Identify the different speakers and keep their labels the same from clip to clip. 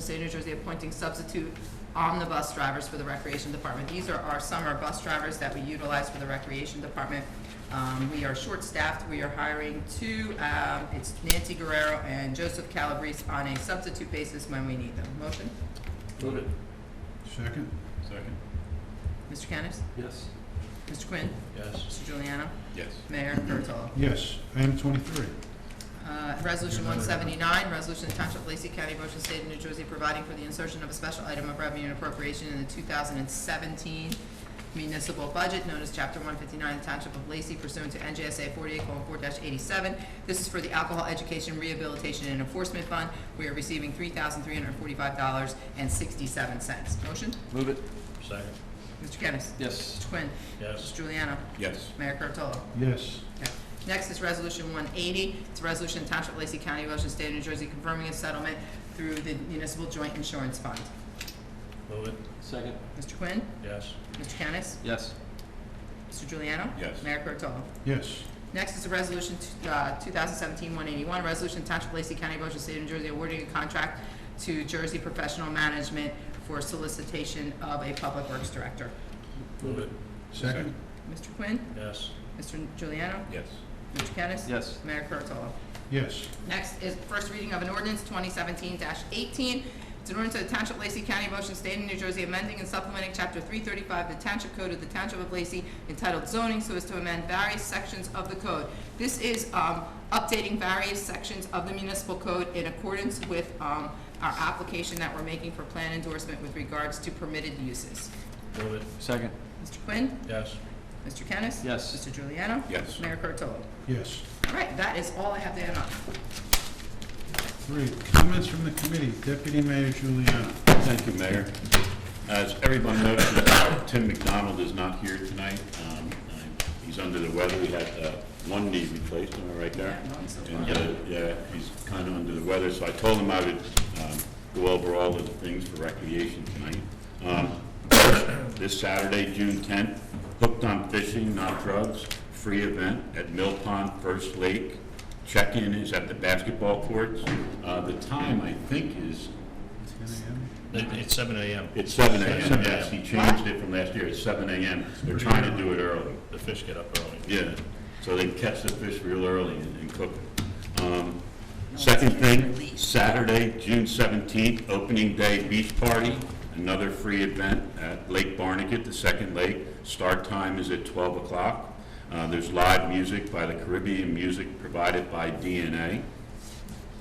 Speaker 1: State of New Jersey appointing substitute omnibus drivers for the Recreation Department. These are our summer bus drivers that we utilize for the Recreation Department. Um, We are short-staffed, we are hiring two, um, it's Nancy Guerrero and Joseph Calabrese on a substitute basis when we need them. Motion,
Speaker 2: Move it.
Speaker 3: Second?
Speaker 2: Second.
Speaker 1: Mr. Kennis?
Speaker 2: Yes.
Speaker 1: Mr. Quinn?
Speaker 2: Yes.
Speaker 1: Mr. Juliano?
Speaker 2: Yes.
Speaker 1: Mayor Kurtolo?
Speaker 3: Yes. Item twenty-three.
Speaker 1: Uh, Resolution 179, resolution of Township of Lacey County, Ocean State of New Jersey, providing for the insertion of a special item of revenue and appropriation in the 2017 municipal budget known as Chapter 159, Township of Lacey pursuant to NJSA 48:4-87. This is for the Alcohol Education Rehabilitation and Enforcement Fund. We are receiving $3,345.67. Motion?
Speaker 2: Move it. Second.
Speaker 1: Mr. Kennis?
Speaker 2: Yes.
Speaker 1: Mr. Quinn?
Speaker 2: Yes.
Speaker 1: Mr. Juliano?
Speaker 2: Yes.
Speaker 1: Mayor Kurtolo?
Speaker 3: Yes.
Speaker 1: Okay. Next is Resolution 180. It's a resolution of Township of Lacey County, Ocean State of New Jersey, confirming a settlement through the Municipal Joint Insurance Fund.
Speaker 2: Move it. Second.
Speaker 1: Mr. Quinn?
Speaker 2: Yes.
Speaker 1: Mr. Kennis?
Speaker 2: Yes.
Speaker 1: Mr. Juliano?
Speaker 2: Yes.
Speaker 1: Mayor Kurtolo?
Speaker 3: Yes.
Speaker 1: Next is a resolution, t- uh, 2017-181, resolution of Township of Lacey County, Ocean State of New Jersey, awarding a contract to Jersey Professional Management for solicitation of a Public Works Director.
Speaker 2: Move it.
Speaker 3: Second?
Speaker 1: Mr. Quinn?
Speaker 2: Yes.
Speaker 1: Mr. Juliano?
Speaker 2: Yes.
Speaker 1: Mr. Kennis?
Speaker 2: Yes.
Speaker 1: Mayor Kurtolo?
Speaker 3: Yes.
Speaker 1: Next is first reading of an ordinance twenty seventeen eighteen. It's an ordinance of the Township of Lacey County, Motion State of New Jersey, amending and supplementing Chapter three thirty-five of the Township Code of the Township of Lacey entitled zoning so as to amend various sections of the code. This is, um, updating various sections of the municipal code in accordance with, um, our application that we're making for plan endorsement with regards to permitted uses.
Speaker 2: Move it.
Speaker 4: Second,
Speaker 1: Mr. Quinn?
Speaker 2: Yes.
Speaker 1: Mr. Kennis?
Speaker 4: yes.
Speaker 1: Mr. Juliano?
Speaker 2: Yes.
Speaker 1: Mayor Kurtolo?
Speaker 3: Yes.
Speaker 1: All right, that is all I have to add on.
Speaker 3: Three, comments from the committee. Deputy Mayor Juliana.
Speaker 5: Thank you, Mayor. As everyone notices, Tim McDonald is not here tonight. Um, I- He's under the weather. He had uh, one knee replaced, am I right there?
Speaker 1: Yeah, mine's so far.
Speaker 5: And, uh, yeah, he's kind of under the weather, so I told him I would um, go over all of the things for recreation tonight. Um, This Saturday, June 10th, Hooked on Fishing, Not Drugs, free event at Mill Pond First Lake. Check-in is at the basketball courts. Uh, The time, I think, is
Speaker 2: It's seven AM.
Speaker 5: it's seven AM,
Speaker 2: 7
Speaker 5: yes, he changed it from last year, it's seven AM. They're trying to do it early,
Speaker 2: The fish get up early.
Speaker 5: yeah, so they catch the fish real early and and cook it. Um, Second thing, Saturday, June seventeenth, opening day beach party, another free event at Lake Barnegat, the second lake. Start time is at twelve o'clock. Uh, There's live music by the Caribbean Music provided by DNA.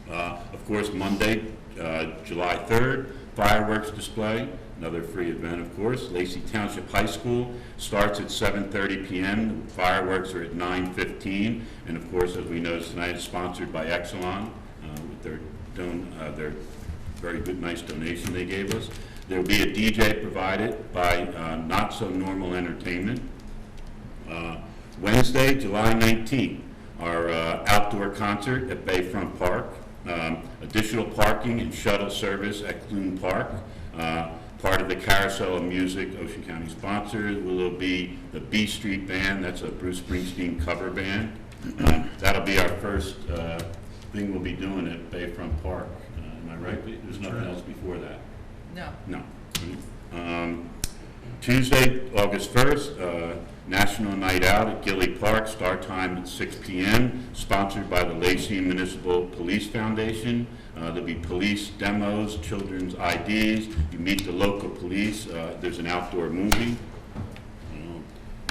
Speaker 5: Uh, Of course, Monday, uh, July 3rd, fireworks display, another free event, of course. Lacey Township High School starts at 7:30 PM. Fireworks are at 9:15. And of course, as we noticed tonight, it's sponsored by Exelon uh, with their don, uh, their very good, nice donation they gave us. There will be a DJ provided by uh, Not So Normal Entertainment. Uh, Wednesday, July 19th, our uh, outdoor concert at Bayfront Park. Um, Additional parking and shuttle service at Clune Park. Uh, Part of the Carousel of Music, Ocean County sponsors, will be the B Street Band, that's a Bruce Springsteen cover band. Um, That'll be our first uh, thing we'll be doing at Bayfront Park. Uh, Am I right? There's nothing else before that?
Speaker 1: No.
Speaker 5: No. Um, Tuesday, August 1st, uh, National Night Out at Gilly Park, start time at 6 PM, sponsored by the Lacey Municipal Police Foundation. Uh, There'll be police demos, children's IDs, you meet the local police, uh, there's an outdoor movie.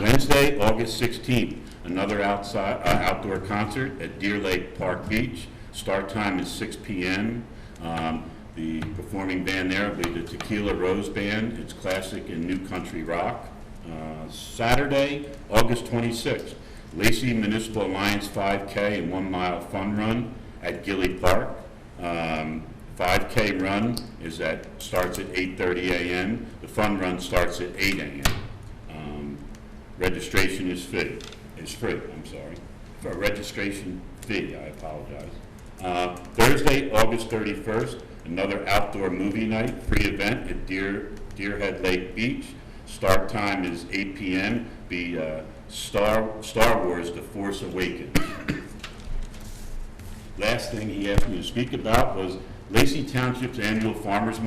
Speaker 5: Wednesday, August 16th, another outside, uh, outdoor concert at Deer Lake Park Beach. Start time is 6 PM. Um, The performing band there will be the Tequila Rose Band. It's classic and new country rock. Uh, Saturday, August 26th, Lacey Municipal Alliance 5K and One Mile Fun Run at Gilly Park. Um, 5K run is at, starts at 8:30 AM. The fun run starts at 8 AM. Um, Registration is free, is free, I'm sorry, for a registration fee, I apologize. Uh, Thursday, August 31st, another outdoor movie night, free event at Deer, Deerhead Lake Beach. Start time is 8 PM, be uh, Star, Star Wars: The Force Awakens last thing he asked me to speak about was Lacey Township's annual farmers market